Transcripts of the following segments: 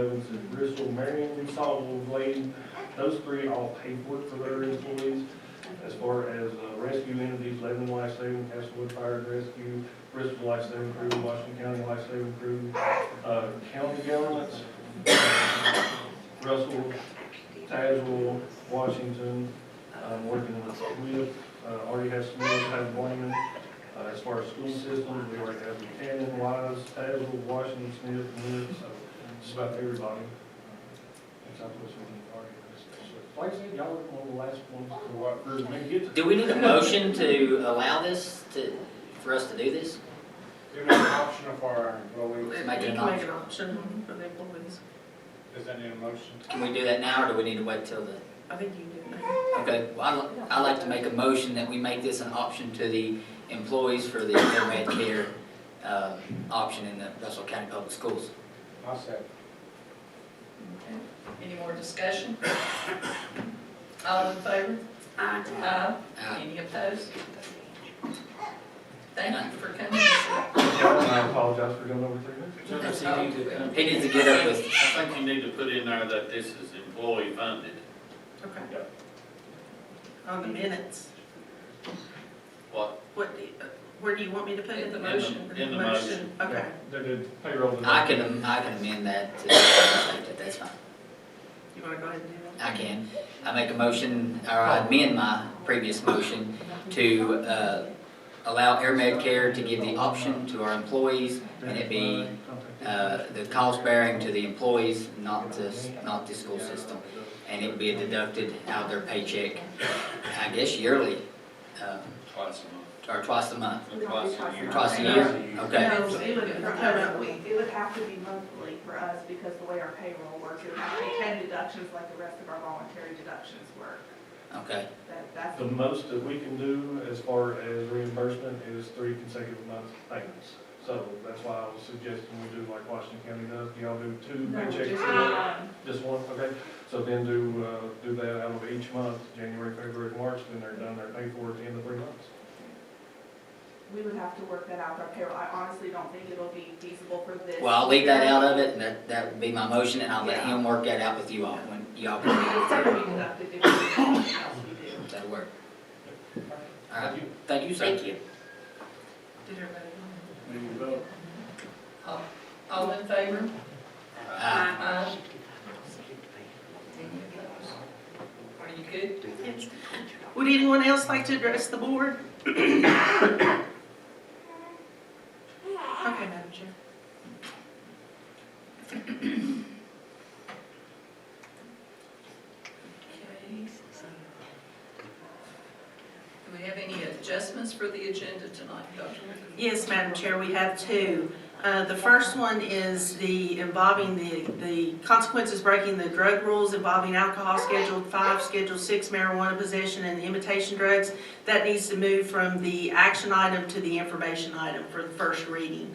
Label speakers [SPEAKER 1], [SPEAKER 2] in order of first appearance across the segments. [SPEAKER 1] uh, Bristol, Marion, we saw Wolf Lane, those three all pay for it for their employees. As far as uh, rescue entities, Lebanon Life Saving, Castlewood Fire and Rescue, Bristol Life Saving Crew, Washington County Life Saving Crew, uh, county governments, Russell, Tazewell, Washington, I'm working with Smith, uh, already have Smith, have Blaine. Uh, as far as school systems, we already have Buchanan, Wise, Tazewell, Washington, Smith, Wood, so just about everybody. Except for some already. So, Like I said, y'all were one of the last ones to walk through, maybe get to
[SPEAKER 2] Do we need a motion to allow this, to, for us to do this?
[SPEAKER 3] Give it an option of our employees.
[SPEAKER 2] Make it an
[SPEAKER 4] You can Make
[SPEAKER 2] option.
[SPEAKER 4] an option for the employees.
[SPEAKER 3] Is that in motion?
[SPEAKER 2] Can we do that now, or do we need to wait till the,
[SPEAKER 4] I think you do.
[SPEAKER 2] okay, well, I'd, li- I'd like to make a motion that we make this an option to the employees for the med care, uh, option in the Russell County Public Schools.
[SPEAKER 3] I'll second.
[SPEAKER 5] Okay. Any more discussion? All in favor? Aye.
[SPEAKER 2] Uh,
[SPEAKER 5] Any opposed? Thank you for coming, sir.
[SPEAKER 1] Y'all, and I apologize for going over three minutes.
[SPEAKER 2] that's- He needs to get up with,
[SPEAKER 6] I think you need to put in there that this is employee funded.
[SPEAKER 4] Okay.
[SPEAKER 1] Yep.
[SPEAKER 4] On the minutes,
[SPEAKER 6] What,
[SPEAKER 4] what, do you- uh, where do you want me to put it?
[SPEAKER 5] In the
[SPEAKER 6] In the- motion. in the motion.
[SPEAKER 4] Okay.
[SPEAKER 1] They did payroll. today.
[SPEAKER 2] I can, am- I can amend that to, that that's fine.
[SPEAKER 4] You wanna go ahead and do that?
[SPEAKER 2] I can. I make a motion, or I amend my previous motion to uh, allow Air Med Care to give the option to our employees and it be uh, the cost bearing to the employees, not the, not the school system. And it would be deducted out of their paycheck, I guess yearly, uh,
[SPEAKER 6] twice a
[SPEAKER 2] or twice a month,
[SPEAKER 6] month, or twice a year?
[SPEAKER 2] twice a year, okay?
[SPEAKER 4] No, it would, no, no, we,
[SPEAKER 7] It would have to be monthly for us because the way our payroll works, it would have to be ten deductions like the rest of our voluntary deductions work.
[SPEAKER 2] Okay,
[SPEAKER 7] That, that's,
[SPEAKER 1] The most that we can do as far as reimbursement is three consecutive months payments. So that's why I was suggesting we do like Washington County does, Do y'all do two
[SPEAKER 7] No,
[SPEAKER 1] paychecks.
[SPEAKER 7] just um,
[SPEAKER 1] a month?
[SPEAKER 7] one.
[SPEAKER 1] Just one, okay, so then do, uh, do that out of each month, January, February, March, then they're done, they're paid for at the end of three months.
[SPEAKER 7] we would have to work that out with our payroll. I honestly don't think it'll be feasible for this.
[SPEAKER 2] well, I'll leave that out of it and that, that would be my motion and I'll let him work that out with you all when y'all
[SPEAKER 7] It's
[SPEAKER 2] can
[SPEAKER 7] gonna be deducted if we do something else we do.
[SPEAKER 2] do that work. All
[SPEAKER 1] Thank
[SPEAKER 2] right,
[SPEAKER 1] you.
[SPEAKER 2] thank you, sir.
[SPEAKER 1] Thank you.
[SPEAKER 4] did everybody?
[SPEAKER 5] All- All in favor?
[SPEAKER 2] Aye.
[SPEAKER 4] Uh-huh.
[SPEAKER 5] Aye. Any opposed? Are you good?
[SPEAKER 4] Would anyone else like to address the board? Okay, Madam Chair.
[SPEAKER 5] Okay. Do we have any adjustments for the agenda tonight, Dr.?
[SPEAKER 4] Yes, Madam Chair, we have two. Uh, The first one is the involving the, the consequences breaking the drug rules involving alcohol scheduled five, scheduled six marijuana possession and imitation drugs. That needs to move from the action item to the information item for the first reading.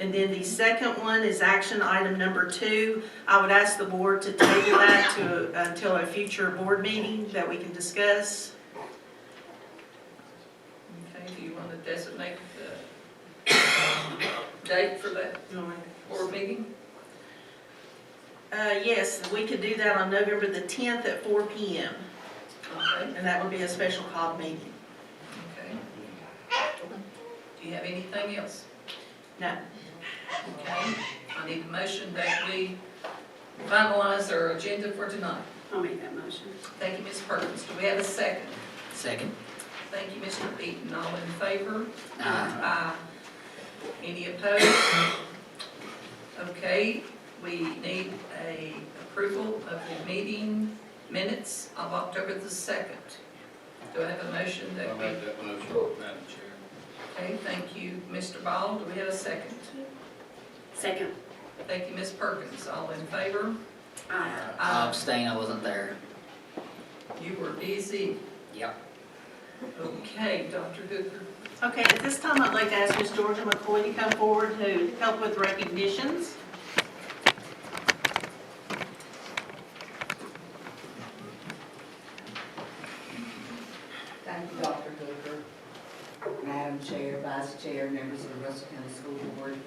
[SPEAKER 4] And then the second one is action item number two. I would ask the board to table that to, until a future board meeting that we can discuss.
[SPEAKER 5] Okay, do you want to designate the date for that
[SPEAKER 4] You want me to-
[SPEAKER 5] board meeting?
[SPEAKER 4] Uh, yes, we could do that on November the tenth at four P M,
[SPEAKER 5] Okay,
[SPEAKER 4] and that would be a special call meeting.
[SPEAKER 5] okay. Do you have anything else?
[SPEAKER 4] No.
[SPEAKER 5] Okay, I need a motion that we finalize our agenda for tonight.
[SPEAKER 8] I'll make that motion.
[SPEAKER 5] Thank you, Ms. Perkins. Do we have a second?
[SPEAKER 2] Second.
[SPEAKER 5] Thank you, Mr. Beaton. All in favor?
[SPEAKER 2] Aye.
[SPEAKER 5] Aye. uh, Any opposed? Okay, we need a approval of the meeting minutes of October the second. Do I have a motion
[SPEAKER 6] I
[SPEAKER 5] that we,
[SPEAKER 6] made that motion, Madam Chair.
[SPEAKER 5] okay, thank you, Mr. Ball. Do we have a second?
[SPEAKER 8] Second.
[SPEAKER 5] Thank you, Ms. Perkins. All in favor?
[SPEAKER 8] Aye.
[SPEAKER 2] I
[SPEAKER 5] Aye.
[SPEAKER 2] abstain, I wasn't there.
[SPEAKER 5] You were busy.
[SPEAKER 2] Yep.
[SPEAKER 5] Okay, Dr. Hooker.
[SPEAKER 4] Okay, at this time, I'd like to ask Ms. Georgia McCoy to come forward to help with recognitions.